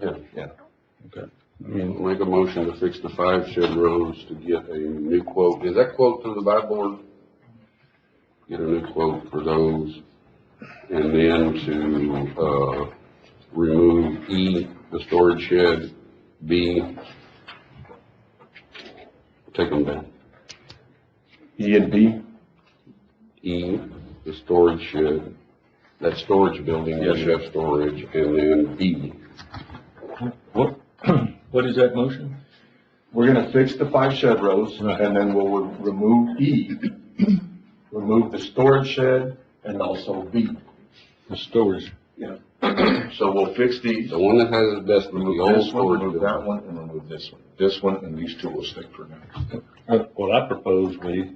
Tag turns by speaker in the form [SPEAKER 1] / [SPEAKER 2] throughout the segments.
[SPEAKER 1] Yeah.
[SPEAKER 2] Yeah.
[SPEAKER 1] Okay. Make a motion to fix the five shed roads to get a new quote. Is that quote through the buy board? Get a new quote for those. And then to, uh, remove E, the storage shed, B, take them down.
[SPEAKER 2] E and B?
[SPEAKER 1] E, the storage shed, that storage building, yes, you have storage, and then E, B,
[SPEAKER 3] What, what is that motion?
[SPEAKER 2] We're gonna fix the five shed rows,
[SPEAKER 3] Right.
[SPEAKER 2] and then we'll re- remove E, remove the storage shed, and also B.
[SPEAKER 3] The storage.
[SPEAKER 2] So we'll fix these,
[SPEAKER 1] the one that has the best, the
[SPEAKER 2] remove
[SPEAKER 1] old
[SPEAKER 2] this one,
[SPEAKER 1] storage
[SPEAKER 2] remove
[SPEAKER 1] building.
[SPEAKER 2] that one, and remove this one. This one, and these two will stay for now.
[SPEAKER 3] Well, I propose we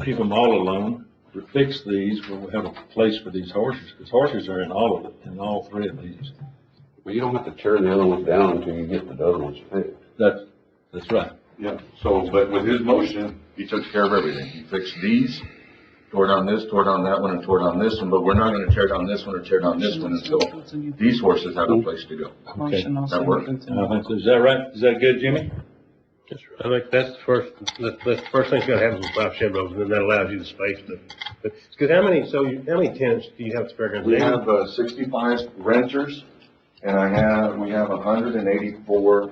[SPEAKER 3] leave them all alone, we fix these, we'll have a place for these horses, because horses are in all of it, in all three of these.
[SPEAKER 1] Well, you don't have to tear the other ones down until you get the other ones fixed.
[SPEAKER 3] That's, that's right.
[SPEAKER 2] Yeah, so, but with his motion, he took care of everything. He fixed these, tore down this, tore down that one, and tore down this one, but we're not gonna tear down this one or tear down this one until these horses have a place to go.
[SPEAKER 4] Motion also
[SPEAKER 2] that works.
[SPEAKER 4] includes.
[SPEAKER 3] And I think, is that right? Is that good, Jimmy?
[SPEAKER 5] I think that's the first, that's, that's the first thing that's gonna happen with five shed roads, and then that allows you the space to, but, cause how many, so you, how many tenants do you have to figure?
[SPEAKER 2] We have uh, sixty-five renters, and I have, we have hundred and eighty-four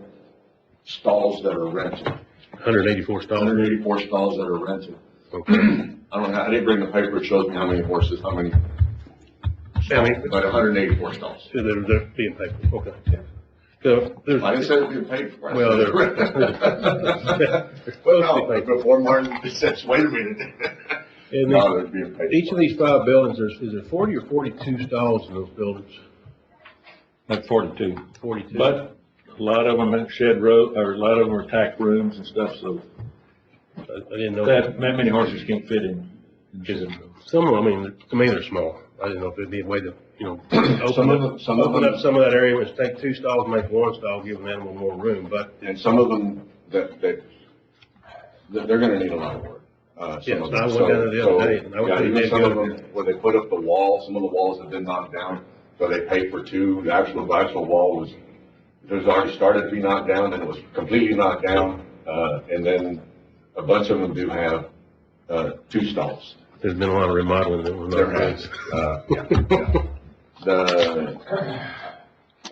[SPEAKER 2] stalls that are rented.
[SPEAKER 5] Hundred eighty-four stalls.
[SPEAKER 2] Hundred and eighty-four stalls that are rented.
[SPEAKER 5] Okay.
[SPEAKER 2] I don't know, I didn't bring the paper, it shows me how many horses, how many,
[SPEAKER 5] I mean,
[SPEAKER 2] but hundred and eighty-four stalls.
[SPEAKER 5] so they're, they're being paid, for. okay. So, there's.
[SPEAKER 2] I didn't say it'd be paid for. I said
[SPEAKER 5] Well, they're-
[SPEAKER 2] rented. Well, no, before Martin says, wait a minute.
[SPEAKER 5] And
[SPEAKER 2] No,
[SPEAKER 5] then,
[SPEAKER 2] they're being paid.
[SPEAKER 5] each
[SPEAKER 2] for.
[SPEAKER 5] of these five buildings, there's, is there forty or forty-two stalls in those buildings?
[SPEAKER 3] Like forty-two.
[SPEAKER 5] Forty-two.
[SPEAKER 3] But a lot of them are shed row, or a lot of them are tack rooms and stuff, so
[SPEAKER 5] I I didn't know.
[SPEAKER 3] that, that many horses can't fit in. in
[SPEAKER 5] Is it-
[SPEAKER 3] shed rows.
[SPEAKER 5] Some of them, I mean, to me, they're small. I didn't know if there'd be a way to, you know,
[SPEAKER 2] Some
[SPEAKER 5] open
[SPEAKER 2] of them-
[SPEAKER 5] up,
[SPEAKER 2] some of
[SPEAKER 5] open
[SPEAKER 2] them-
[SPEAKER 5] up some of that area, which take two stalls, make one stall, give an animal more room, but,
[SPEAKER 2] And some of them, that, that, that they're gonna need a lot of work. Uh, some
[SPEAKER 5] Yes, I
[SPEAKER 2] of them.
[SPEAKER 5] went
[SPEAKER 2] So-
[SPEAKER 5] down the other day, and I
[SPEAKER 2] so,
[SPEAKER 5] was
[SPEAKER 2] Yeah,
[SPEAKER 5] pretty
[SPEAKER 2] even
[SPEAKER 5] damn
[SPEAKER 2] some of
[SPEAKER 5] good.
[SPEAKER 2] them, where they put up the wall, some of the walls have been knocked down, so they paid for two, the actual, the actual wall was, it was already started to be knocked down, and it was completely knocked down, uh, and then a bunch of them do have, uh, two stalls.
[SPEAKER 5] there's been a lot of remodeling that was
[SPEAKER 2] There
[SPEAKER 5] not
[SPEAKER 2] has,
[SPEAKER 5] done.
[SPEAKER 2] uh, yeah, yeah. The,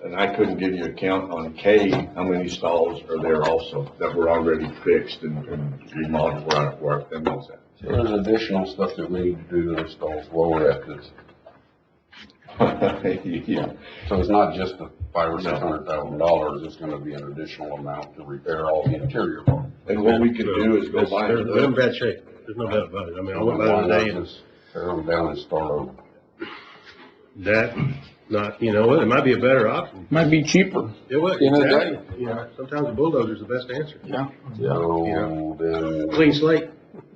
[SPEAKER 2] and I couldn't give you a count on K, how many stalls are there also that were already fixed and and remodeled where I worked and all that.
[SPEAKER 1] So There's additional stuff that we need to do to the stalls while we're at this.
[SPEAKER 2] Yeah,
[SPEAKER 1] So it's not just the five or
[SPEAKER 2] No.
[SPEAKER 1] six hundred thousand dollars, it's gonna be an additional amount to repair all the interior part.
[SPEAKER 2] and what we could do is go buy
[SPEAKER 5] They're, they're in
[SPEAKER 2] another,
[SPEAKER 5] bad shape. There's no doubt about it. I mean, I went by
[SPEAKER 1] Why
[SPEAKER 5] there
[SPEAKER 1] not
[SPEAKER 5] today and
[SPEAKER 1] just Tear them down and start over.
[SPEAKER 5] that, not, you know, what, it might be a better option.
[SPEAKER 4] Might be cheaper.
[SPEAKER 5] It would,
[SPEAKER 4] You know, that-
[SPEAKER 5] exactly. You know, sometimes the bulldozer's the best answer.
[SPEAKER 1] So then,
[SPEAKER 5] Clean slate.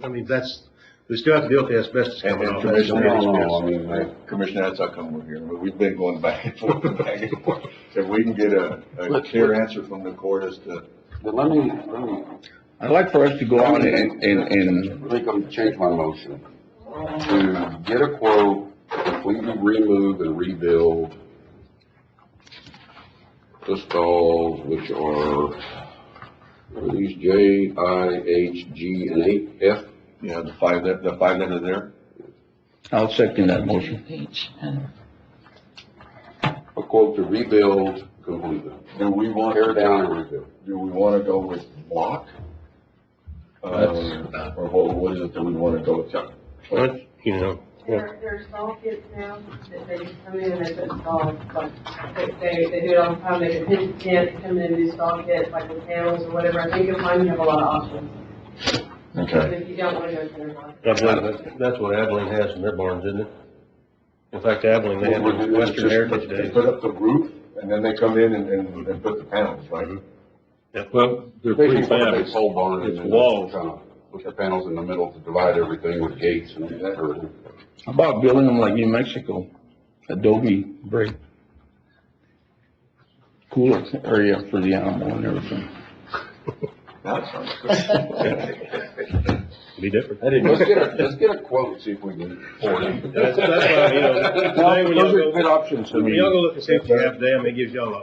[SPEAKER 5] I mean, that's, we still have to deal with the asbestos
[SPEAKER 2] And-
[SPEAKER 5] coming
[SPEAKER 2] and
[SPEAKER 5] off. That's
[SPEAKER 1] I
[SPEAKER 2] Commissioner-
[SPEAKER 5] the biggest
[SPEAKER 1] don't
[SPEAKER 5] mess.
[SPEAKER 1] know, I mean, uh,
[SPEAKER 2] Commissioner, that's how come we're here, but we've been going back and forth and back and forth. If we can get a, a clear answer from the court as to,
[SPEAKER 1] but let me, let me
[SPEAKER 4] I'd like for us to go on and, and, and
[SPEAKER 1] I think I'm change my motion to get a quote, completely remove and rebuild the stalls, which are, are these J, I, H, G, and eight, F.
[SPEAKER 2] you know, the five that, the five that are there.
[SPEAKER 4] I'll second that motion.
[SPEAKER 6] H and
[SPEAKER 1] A quote to rebuild completely,
[SPEAKER 2] Do we want?
[SPEAKER 1] tear down and rebuild.
[SPEAKER 2] do we want to go with block? Um, Or what, what is it that we want to go with?
[SPEAKER 5] But, You know,
[SPEAKER 7] There, there's small kids now that they just come in and they put stalls, like, they- they, they do it all the time, they put his kids, come in and do stall kits, like with panels or whatever, I think you'll find you have a lot of options.
[SPEAKER 2] Okay.
[SPEAKER 7] If you don't want to go to the block.
[SPEAKER 5] I believe that- that's what Abilene has in their barns, isn't it? In fact, Abilene, they have the Western Heritage
[SPEAKER 2] They
[SPEAKER 5] Days.
[SPEAKER 2] put up the roof and then they come in and, and, and put the panels, right?
[SPEAKER 5] Mm-hmm.
[SPEAKER 3] Well, they're pretty
[SPEAKER 1] Basically,
[SPEAKER 3] bad.
[SPEAKER 1] a big pole barn. and
[SPEAKER 3] It's
[SPEAKER 1] then
[SPEAKER 3] walls.
[SPEAKER 1] kinda Put the panels in the middle to divide everything with gates and that, or
[SPEAKER 4] How about building them like New Mexico, adobe brick? Cooler area for the animal and everything.
[SPEAKER 2] That sounds good.
[SPEAKER 5] Be different.
[SPEAKER 1] Let's get a, let's get a quote, see if we can afford it.
[SPEAKER 5] That's, that's why, you know, today when y'all
[SPEAKER 4] Those are
[SPEAKER 5] go,
[SPEAKER 4] good options, I mean.
[SPEAKER 5] y'all go look and see what you have today, I mean, it gives y'all a